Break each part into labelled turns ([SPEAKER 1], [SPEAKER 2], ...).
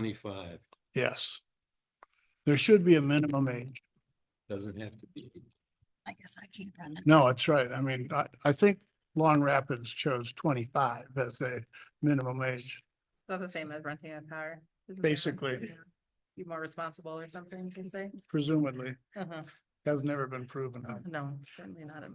[SPEAKER 1] twenty-five,
[SPEAKER 2] Yes. There should be a minimum age.
[SPEAKER 1] doesn't have to be.
[SPEAKER 3] I guess I can't run it.
[SPEAKER 2] No, that's right. I mean, I, I think Long Rapids chose twenty-five as a minimum age.
[SPEAKER 4] Not the same as renting a car. isn't it?
[SPEAKER 2] Basically.
[SPEAKER 4] Be more responsible or something, you can say.
[SPEAKER 2] Presumably,
[SPEAKER 4] Uh-huh.
[SPEAKER 2] has never been proven.
[SPEAKER 4] No, certainly not. a-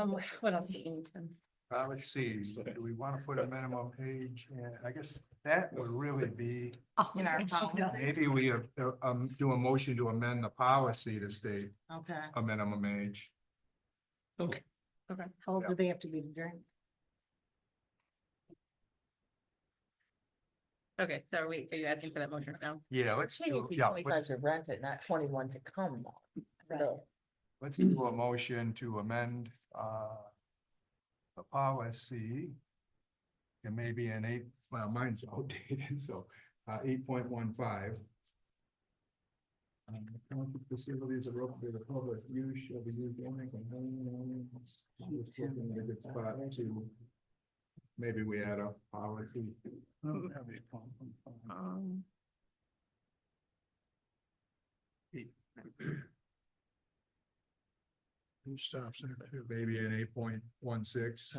[SPEAKER 4] Um, what else? do you need to-
[SPEAKER 5] Uh, let's see, do we want to put a minimum age? And I guess that would really be,
[SPEAKER 3] In our policy.
[SPEAKER 5] maybe we uh, um, do a motion to amend the policy to state
[SPEAKER 3] Okay.
[SPEAKER 5] a minimum age.
[SPEAKER 3] Okay. How old do they have to be to drink?
[SPEAKER 4] Okay, so are we, are you asking for that motion now?
[SPEAKER 5] Yeah, let's do, yeah, let's,
[SPEAKER 3] to rent it, not twenty-one to come.
[SPEAKER 5] let's do a motion to amend, uh, the policy. And maybe an eight, well, mine's outdated, so, uh, eight point one five. Um, county facilities are open to the public use shall be used only for home use. Just looking at a good spot to- Maybe we add a policy.
[SPEAKER 4] Um,
[SPEAKER 2] Who stops there too?
[SPEAKER 5] Maybe an eight point one six,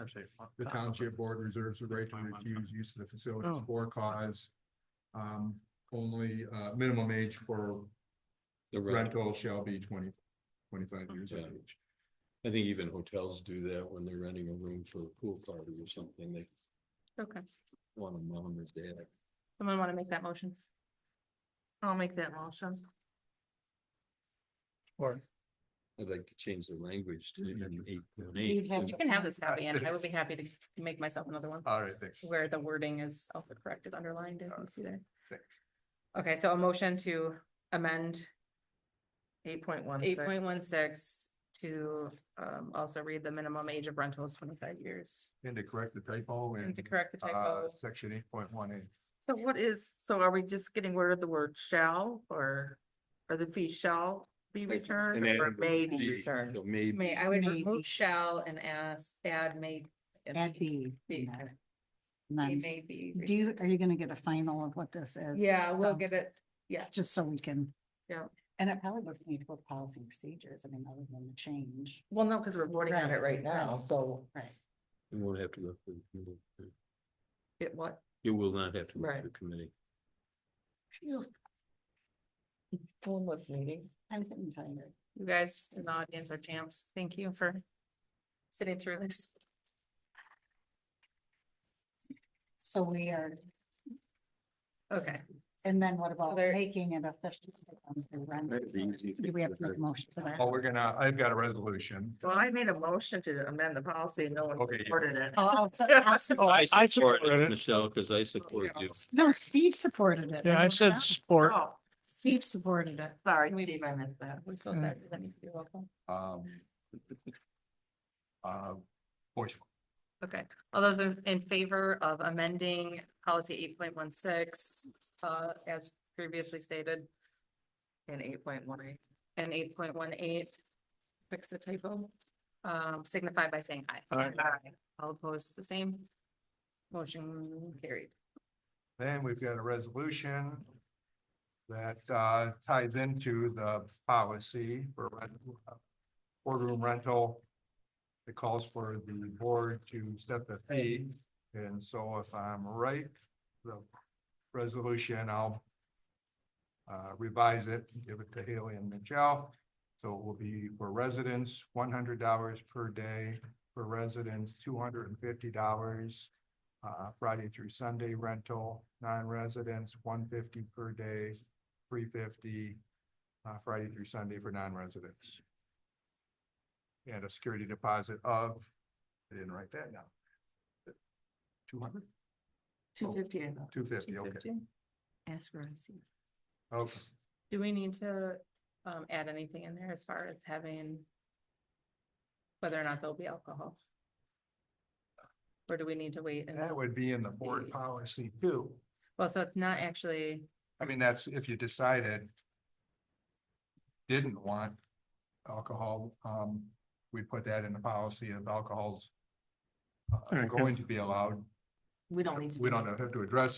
[SPEAKER 5] the township board reserves the right to
[SPEAKER 6] 8.15.
[SPEAKER 5] refuse use of the facilities
[SPEAKER 2] Oh.
[SPEAKER 5] for cause. Um, only, uh, minimum age for
[SPEAKER 1] The rental,
[SPEAKER 5] rental shall be 20 25 years of
[SPEAKER 1] Yeah.
[SPEAKER 5] age.
[SPEAKER 1] I think even hotels do that when they're renting a room for a pool party or something, they
[SPEAKER 4] Okay,
[SPEAKER 1] want a mom or dad.
[SPEAKER 4] someone want to make that motion? I'll make that motion.
[SPEAKER 2] Or,
[SPEAKER 1] I'd like to change the language to
[SPEAKER 2] Mm-hmm.
[SPEAKER 5] Mm.
[SPEAKER 1] an eight point
[SPEAKER 3] You'd have
[SPEAKER 1] eight.
[SPEAKER 4] You can have this copy and I will be happy to make myself another one.
[SPEAKER 5] All right, thanks.
[SPEAKER 4] Where the wording is also corrected, underlined, if you see there.
[SPEAKER 5] Thanks.
[SPEAKER 4] Okay, so a motion to amend
[SPEAKER 7] Eight point one.
[SPEAKER 4] eight point one six to um also read the minimum age of rental is twenty-five years.
[SPEAKER 5] And to correct the typo
[SPEAKER 4] And to
[SPEAKER 5] in,
[SPEAKER 4] correct the
[SPEAKER 5] uh,
[SPEAKER 4] typo,
[SPEAKER 5] section eight point one eight.
[SPEAKER 7] So what is, so are we just getting rid of the word shall or, or the fee shall be returned
[SPEAKER 1] And
[SPEAKER 7] or
[SPEAKER 1] add
[SPEAKER 7] may be
[SPEAKER 1] the-
[SPEAKER 7] returned?
[SPEAKER 1] so Maybe.
[SPEAKER 4] may, I would
[SPEAKER 3] Maybe.
[SPEAKER 4] remove shall and ask, add may. and
[SPEAKER 3] That'd
[SPEAKER 4] be- be-
[SPEAKER 3] be nice.
[SPEAKER 4] be
[SPEAKER 3] nice.
[SPEAKER 4] may be
[SPEAKER 3] Do you,
[SPEAKER 4] removed.
[SPEAKER 3] are you gonna get a final of what this is?
[SPEAKER 4] Yeah, we'll
[SPEAKER 3] Um,
[SPEAKER 4] get it, yeah,
[SPEAKER 3] Just so we can.
[SPEAKER 4] Yeah.
[SPEAKER 3] And it probably doesn't need to go to policy and procedures, I mean, other than the change.
[SPEAKER 7] Well, no, because we're voting on it
[SPEAKER 3] Right,
[SPEAKER 7] right now,
[SPEAKER 3] right.
[SPEAKER 7] so,
[SPEAKER 3] Right.
[SPEAKER 1] It won't have to go through. the committee.
[SPEAKER 4] it what,
[SPEAKER 1] It will not have to go
[SPEAKER 7] Right.
[SPEAKER 1] through committee.
[SPEAKER 7] one was meeting.
[SPEAKER 3] I'm getting tired.
[SPEAKER 4] you guys in the audience are champs, thank you for sitting through this.
[SPEAKER 3] So we are,
[SPEAKER 4] Okay,
[SPEAKER 3] and then what about
[SPEAKER 4] Other-
[SPEAKER 3] making it official? um, for rent?
[SPEAKER 1] That'd be easy if
[SPEAKER 3] Do we
[SPEAKER 1] it
[SPEAKER 3] have to make
[SPEAKER 1] was-
[SPEAKER 3] a motion to that?
[SPEAKER 5] Oh, we're gonna, I've got a resolution.
[SPEAKER 7] Well, I made a motion to amend the policy. No one
[SPEAKER 5] Okay, yeah.
[SPEAKER 7] supported it.
[SPEAKER 3] Oh, I'll se- I'll se-
[SPEAKER 2] oh, I, I supported it.
[SPEAKER 1] Michelle, because I support you.
[SPEAKER 3] No, Steve supported it.
[SPEAKER 2] Yeah, I
[SPEAKER 3] wrote
[SPEAKER 2] said
[SPEAKER 3] down.
[SPEAKER 2] support.
[SPEAKER 7] Oh,
[SPEAKER 3] Steve supported it.
[SPEAKER 7] sorry, Steve, I missed that.
[SPEAKER 4] we spoke that, does that need to be roll call?
[SPEAKER 5] Um, uh, voice
[SPEAKER 4] Okay, all those in, in favor of amending policy eight point one six, uh, as previously stated,
[SPEAKER 7] In eight point one eight.
[SPEAKER 4] and eight point one eight, fix the typo, um, signify by saying aye.
[SPEAKER 2] Aye.
[SPEAKER 4] All opposed, the same. Motion carried.
[SPEAKER 5] Then we've got a resolution that uh, ties into the policy for rent, uh, boardroom rental. It calls for the board to set the fee, and so if I'm right, the resolution, I'll uh, revise it, give it to Haley and Michelle. So it will be for residents, one hundred dollars per day, for residents, two hundred and fifty dollars uh, Friday through Sunday rental, non-residents, one fifty per day, three fifty, uh, Friday through Sunday for non-residents. And a security deposit of, I didn't write that down. Two hundred,
[SPEAKER 7] Two fifty, I thought.
[SPEAKER 5] two fifty, okay,
[SPEAKER 3] As for I see.
[SPEAKER 5] okay.
[SPEAKER 4] Do we need to, um, add anything in there as far as having whether or not there'll be alcohol? Or do we need to wait? and-
[SPEAKER 5] That would be in the board policy too.
[SPEAKER 4] Well, so it's not actually,
[SPEAKER 5] I mean, that's if you decided didn't want alcohol, um, we put that in the policy of alcohol's uh,
[SPEAKER 6] All right,
[SPEAKER 5] going
[SPEAKER 6] guess-
[SPEAKER 5] to be allowed.
[SPEAKER 7] We don't need to.
[SPEAKER 5] We
[SPEAKER 7] do
[SPEAKER 5] don't
[SPEAKER 7] that.
[SPEAKER 5] have to address